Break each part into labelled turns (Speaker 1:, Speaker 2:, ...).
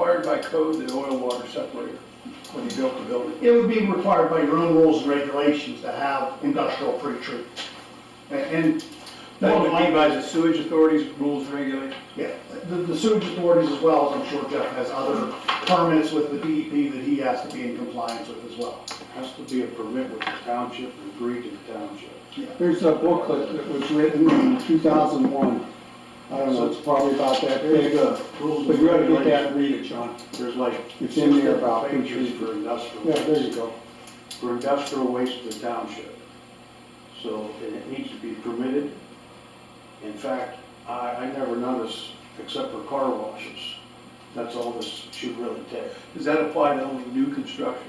Speaker 1: required by code that oil water separator when you built the building?
Speaker 2: It would be required by your own rules and regulations to have industrial pre-treat. A- And,
Speaker 1: That would
Speaker 2: more
Speaker 1: be
Speaker 2: than
Speaker 1: by
Speaker 2: likely,
Speaker 1: the sewage authorities, rules, and regulations?
Speaker 2: yeah, the the sewage authorities as well, as I'm sure Jeff has other permits with the DEP that he has to be in compliance with as well.
Speaker 3: Has to be a permit with the township, agreed to the township.
Speaker 4: There's a booklet that was written in 2001. I don't know, it's probably about that big.
Speaker 3: Rules
Speaker 4: But
Speaker 3: and
Speaker 4: you ought to get that
Speaker 3: regulations.
Speaker 4: and read it, John.
Speaker 3: There's like
Speaker 4: It's
Speaker 3: six
Speaker 4: in there about
Speaker 3: different pages for
Speaker 4: Yeah, there you
Speaker 3: industrial,
Speaker 4: go.
Speaker 3: for industrial waste to the township. So, and it needs to be permitted. In fact, I, I never noticed, except for car washes, that's all this should really take.
Speaker 1: Does that apply to only new construction?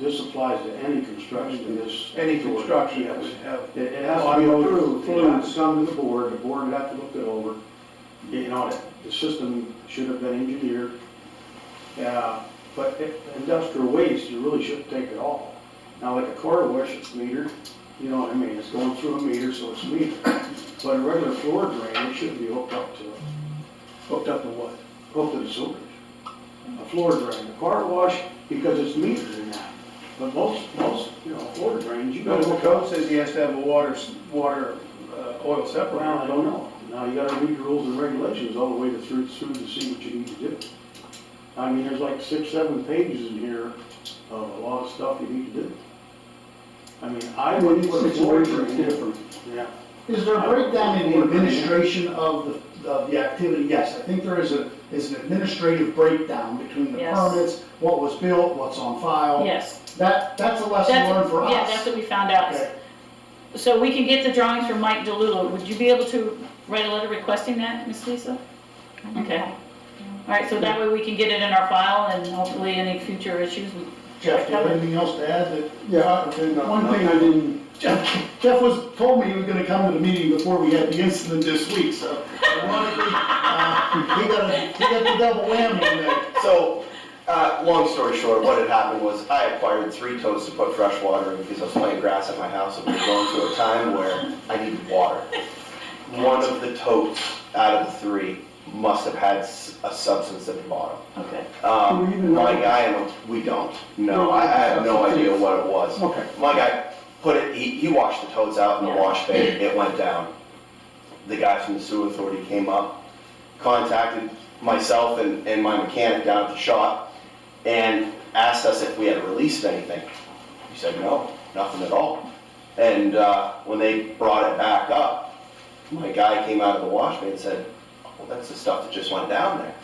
Speaker 3: This applies to any construction in this.
Speaker 1: Any construction that
Speaker 3: Yes.
Speaker 1: would have,
Speaker 3: It, it has to be approved, it has to come to the board, the board would have to look it over, get an audit. The system should have been engineered. Yeah, but i- industrial waste, you really shouldn't take it all. Now, like a car wash, it's metered, you know what I mean, it's going through a meter, so it's metered. But a regular floor drain, it shouldn't be hooked up to,
Speaker 1: hooked up to what?
Speaker 3: hooked to the sewers. A floor drain, a car wash, because it's metered in that. But most, most, you know, floor drains, you
Speaker 1: No,
Speaker 3: gotta
Speaker 1: the
Speaker 3: hook up
Speaker 1: code says he has to have a water, s- water, uh, oil
Speaker 3: Well, I
Speaker 1: separator.
Speaker 3: don't know. Now, you gotta read the rules and regulations all the way to through, through to see what you need to do. I mean, there's like six, seven pages in here of a lot of stuff you need to do. I mean, I
Speaker 4: Every
Speaker 3: would put a floor
Speaker 4: situation's
Speaker 3: drain.
Speaker 4: different.
Speaker 3: Yeah,
Speaker 2: Is there a breakdown in the administration of the, of the activity? Yes, I think there is a, is an administrative breakdown between the
Speaker 5: Yes.
Speaker 2: permits, what was built, what's on file.
Speaker 5: Yes.
Speaker 2: That, that's a lesson
Speaker 5: That's-
Speaker 2: learned for us.
Speaker 5: Yeah, that's what we found out.
Speaker 2: Okay.
Speaker 5: So we can get the drawings from Mike DeLulo. Would you be able to write a letter requesting that, Ms. Lisa? Okay. All right, so that way we can get it in our file and hopefully any future issues. we-
Speaker 2: Jeff, do you have anything else to add that?
Speaker 4: Yeah, one thing I didn't,
Speaker 2: Jeff, Jeff was, told me he was gonna come to the meeting before we had the incident this week, so. ironically, uh, He got, a- he got the double whammy on that.
Speaker 6: So, uh, long story short, what had happened was I acquired three totes to put fresh water in because I was playing grass at my house and we were going through a time where I needed water. One of the totes out of the three must have had s- a substance at the bottom.
Speaker 5: Okay.
Speaker 4: Do we
Speaker 6: Um,
Speaker 4: even know?
Speaker 6: my guy, and we don't, no, I, I have no idea what it was.
Speaker 4: okay.
Speaker 6: My guy put it, he, he washed the toads out in the
Speaker 5: Yeah.
Speaker 6: wash bay, it went down. The guy from the sewer authority came up, contacted myself and, and my mechanic down at the shop, and asked us if we had released anything. We said, no, nothing at all. And, uh, when they brought it back up, my guy came out of the wash bay and said, well, that's the stuff that just went down there.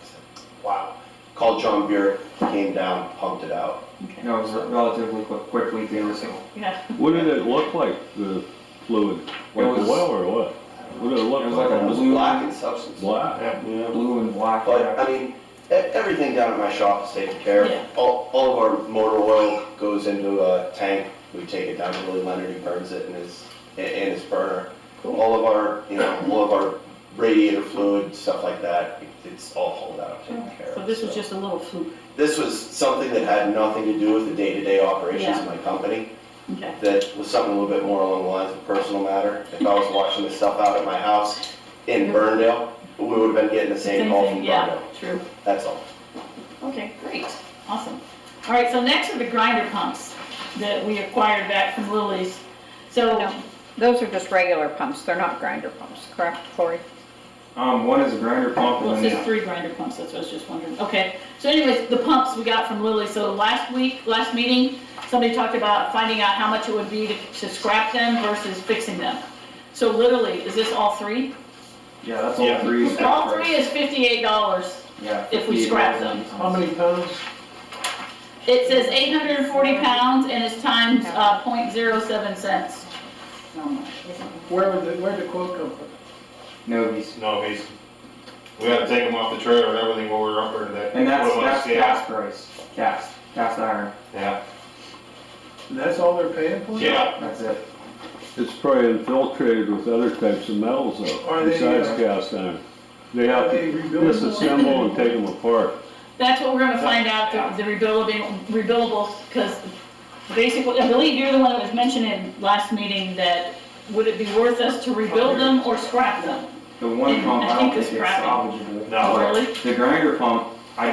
Speaker 6: I said, Wow. Called John Burek, came down, pumped it out.
Speaker 5: Okay.
Speaker 7: No, it was relatively quick, quickly de-risking.
Speaker 5: Yeah.
Speaker 8: What did it look like, the fluid? Like
Speaker 7: was-
Speaker 8: oil or what? What did it look
Speaker 7: it was
Speaker 8: like?
Speaker 7: like a
Speaker 6: It was
Speaker 7: blue-
Speaker 6: black in substance.
Speaker 8: Black?
Speaker 3: yeah.
Speaker 7: Blue and black.
Speaker 6: But, I mean, e- everything down at my shop is taken care
Speaker 5: Yeah.
Speaker 6: of. All, all of our motor oil goes into a tank, we take it down to Willie Leonard, he burns it in his, i- in his burner. All of our, you know, all of our radiator fluid, stuff like that, it's all hauled out, taken care of.
Speaker 5: So this was just a little fluke.
Speaker 6: This was something that had nothing to do with the day-to-day operations of my company
Speaker 5: Okay.
Speaker 6: that was something a little bit more along the lines of personal matter. If I was washing this stuff out at my house in Burndale, we would have been getting the same call from
Speaker 5: thing, Yeah,
Speaker 6: Burndale.
Speaker 5: true.
Speaker 6: That's all.
Speaker 5: Okay, great, awesome. All right, so next are the grinder pumps that we acquired back from Lily's. So,
Speaker 9: No, those are just regular pumps, they're not grinder pumps, correct, Corey?
Speaker 7: Um, one is a grinder pump
Speaker 5: well,
Speaker 7: and
Speaker 5: it's
Speaker 7: then
Speaker 5: just three grinder pumps, that's what I was just wondering. Okay, so anyways, the pumps we got from Lily, so last week, last meeting, somebody talked about finding out how much it would be to to scrap them versus fixing them. So literally, is this all three?
Speaker 7: yeah, that's all three. is
Speaker 5: All
Speaker 7: correct.
Speaker 5: three is fifty-eight dollars.
Speaker 7: Yeah.
Speaker 5: if we scrap them.
Speaker 1: How many pounds?
Speaker 5: It says eight hundred and forty pounds and it's times, uh, point zero seven cents.
Speaker 1: Where would, the- where'd the quote come from?
Speaker 7: Novies.
Speaker 10: No, he's, we gotta take them off the trailer and everything while we're up there today.
Speaker 7: And that's,
Speaker 10: Put 'em on
Speaker 7: that's
Speaker 10: scale.
Speaker 7: cast price, cast, cast iron,
Speaker 10: Yeah,
Speaker 1: And that's all they're paying for?
Speaker 10: yeah,
Speaker 7: that's it.
Speaker 8: It's probably infiltrated with other types of metals
Speaker 1: Are
Speaker 8: though,
Speaker 1: they,
Speaker 8: besides
Speaker 1: uh,
Speaker 8: cast iron. They have
Speaker 1: Are they
Speaker 8: to
Speaker 1: rebuildable?
Speaker 8: disassemble and take them apart.
Speaker 5: That's what we're gonna find out, the the rebuildable, rebuildable, because basically, I believe you're the one that was mentioning last meeting that would it be worth us to rebuild them or scrap them?
Speaker 7: The one
Speaker 5: And
Speaker 7: pump,
Speaker 5: I
Speaker 7: I
Speaker 5: think
Speaker 7: don't
Speaker 5: it's
Speaker 7: think it's
Speaker 5: scrapping.
Speaker 7: salvageable.
Speaker 10: No.
Speaker 5: Really?
Speaker 7: The grinder pump,